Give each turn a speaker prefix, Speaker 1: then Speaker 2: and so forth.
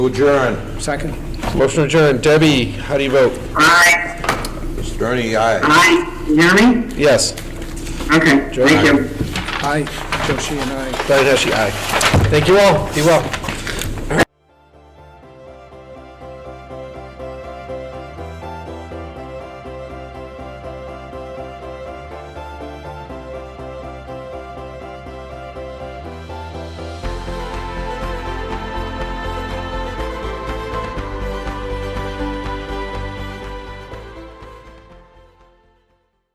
Speaker 1: Adjourn.
Speaker 2: Second?
Speaker 3: Motion adjourned. Debbie, how do you vote?
Speaker 4: Aye,
Speaker 1: Mr. Ernie, aye.
Speaker 4: aye, you hear me?
Speaker 3: Yes.
Speaker 4: Okay, thank you.
Speaker 2: Aye. Joshi and I.
Speaker 3: Brian Heskey, aye. Thank you all. Be well.